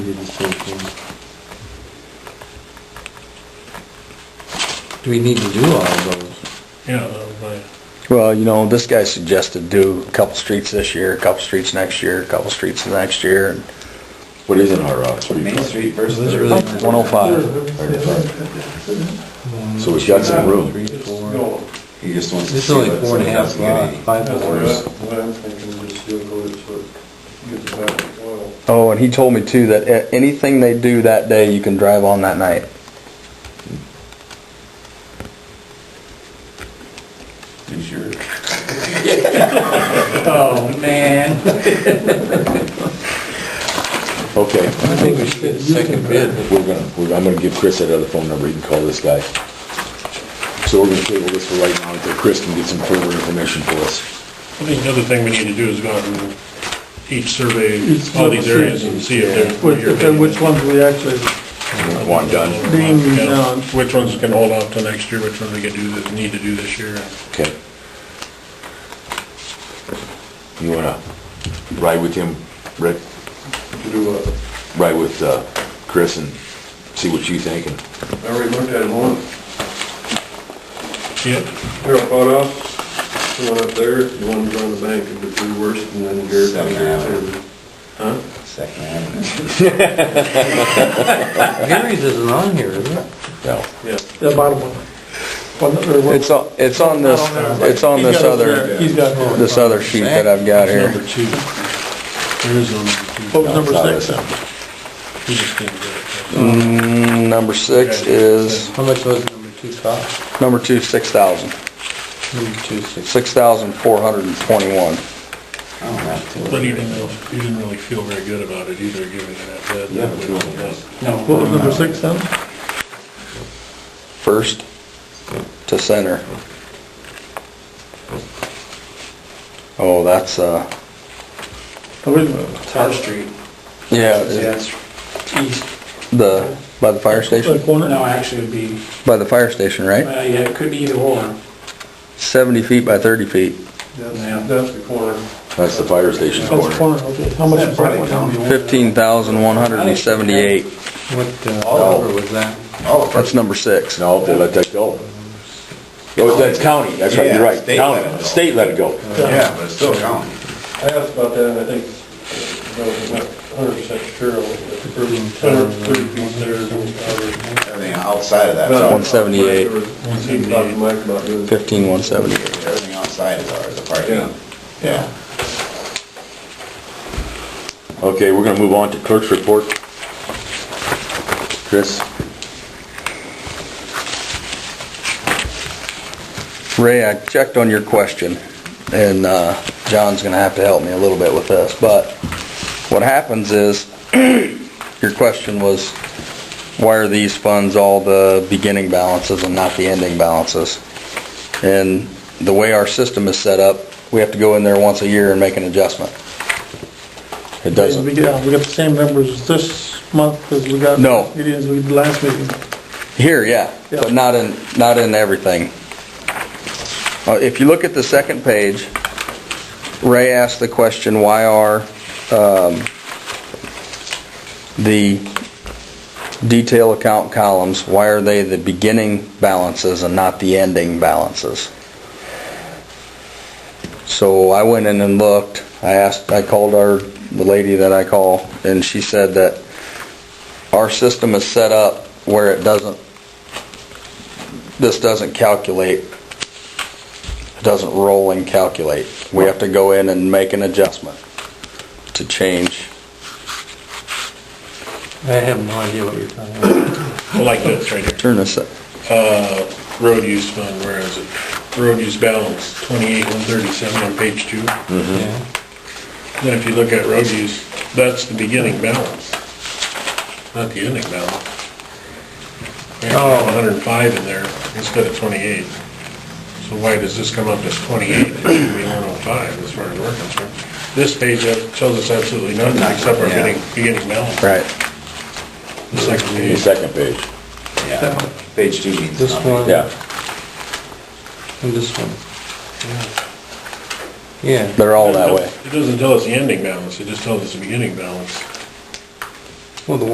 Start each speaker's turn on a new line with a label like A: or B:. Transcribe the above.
A: did the same thing. Do we need to do all of those?
B: Yeah, that was my,
C: Well, you know, this guy suggested do a couple streets this year, a couple streets next year, a couple streets the next year, and
D: What is an R out? Main Street
A: Does
D: versus.
A: it really?
C: 105.
D: So we've got some room.
A: Three, four,
B: no,
D: He just wants to
A: it's
D: see
A: only
D: what
A: four and a
D: somebody else
A: half
D: can get
A: lot,
D: any.
A: five
B: that's what
A: dollars.
B: I- what I'm thinking, just do go to sort of get the back oil.
C: Oh, and he told me too that a- anything they do that day, you can drive on that night.
D: You sure?
E: Oh, man.
D: Okay,
A: I think we should get a second bid.
D: we're gonna, we're- I'm gonna give Chris that other phone number, you can call this guy. So we're gonna table this for right now until Chris can get some further information for us.
B: I think the other thing we need to do is go out and each survey all these areas and see if they're. what
F: Which,
B: you're
F: then which
B: thinking.
F: ones we actually,
D: One done,
F: Being,
B: Yeah.
F: uh,
B: Which ones can hold off till next year, which ones we can do, that need to do this year.
D: okay. You wanna ride with him, Rick?
B: Do a,
D: Ride with, uh, Chris and see what you think and
B: I already looked at one. Yep. Here, I bought off, the one up there, the one on the bank, the two worst, and then here.
D: Second Avenue.
B: Huh?
D: Second Avenue.
A: Gary's isn't on here, is it?
D: No,
B: Yeah.
F: the bottom one. one. or one-
C: It's on, it's on this, it's on
F: He's
C: this
F: got it there.
C: other,
F: He's got it.
C: this other sheet that I've got here.
B: Number two. There is no number two.
F: What was number
D: Not
F: six?
D: this one.
B: He just didn't get it.
C: Mm, Number six is,
A: How much was number two cost?
C: number two, six thousand,
A: Number two, six.
C: six thousand four hundred and twenty-one.
B: But he didn't, really- he didn't really feel very good about it either, giving it that bid.
D: Yeah, but two of them.
F: What was number six then?
C: First to center. Oh, that's, uh,
F: Oh, wait a minute.
E: Tar Street,
C: yeah, it's
E: that's east,
C: the, by the fire
F: The
C: station,
F: corner?
E: no, actually it'd be,
C: by the fire station, right?
E: well, yeah, it could be either or.
C: Seventy feet by thirty feet,
E: Yeah.
F: That's that's the corner.
D: That's the fire station
F: That's the
D: corner.
F: corner, okay. How much is that one?
C: fifteen thousand one hundred and seventy-eight.
A: What, uh,
G: Oh,
A: number was that?
C: That's number six.
D: No, they let that go. Oh, that's county, that's right, you're right, county, state let it go.
G: Yeah, but it's still counting.
B: I asked about that, and I think, I was not hundred percent sure, on the first, hundred thirty feet there, uh, and I
G: Everything outside of that's
B: was.
G: ours.
C: 178.
B: One seventy-eight. Mike about doing.
C: Fifteen one seventy.
G: Everything outside is ours, the
B: Yeah.
G: parking. Yeah.
D: Okay, we're gonna move on to clerk's report. Chris?
C: Ray, I checked on your question, and uh, John's gonna have to help me a little bit with this, but what happens is, your question was, why are these funds all the beginning balances and not the ending balances? And the way our system is set up, we have to go in there once a year and make an adjustment. It doesn't,
F: We got, we got the same numbers this month as we got.
C: No.
F: Meetings we did last meeting.
C: Here, yeah, but
F: Yeah.
C: not in, not in everything. Uh, If you look at the second page, Ray asked the question, why are um, the detail account columns, why are they the beginning balances and not the ending balances? So I went in and looked, I asked, I called our, the lady that I call, and she said that our system is set up where it doesn't, this doesn't calculate, it doesn't roll and calculate. We have to go in and make an adjustment to change.
A: I have no idea what you're talking about.
B: I like this right here.
C: Turn this, up.
B: Road use fund, where is it? Road use balance, twenty-eight, one thirty-seven on page two.
A: Yeah.
B: Then if you look at road use, that's the beginning balance, not the ending balance.
A: Oh.
B: one hundred and five in there instead of twenty-eight. So why does this come up as twenty-eight, it should be one oh five as far as we're concerned? This page up tells us absolutely nothing except our
G: Yeah.
B: beginning, beginning balance.
C: right,
B: The second
D: The
B: page,
D: second page,
G: Yeah. Page two means
A: This
G: nothing.
A: one
D: yeah.
A: and this one. Yeah.
C: they're all that way.
B: It doesn't tell us the ending balance, it just tells us the beginning balance.
A: Well, the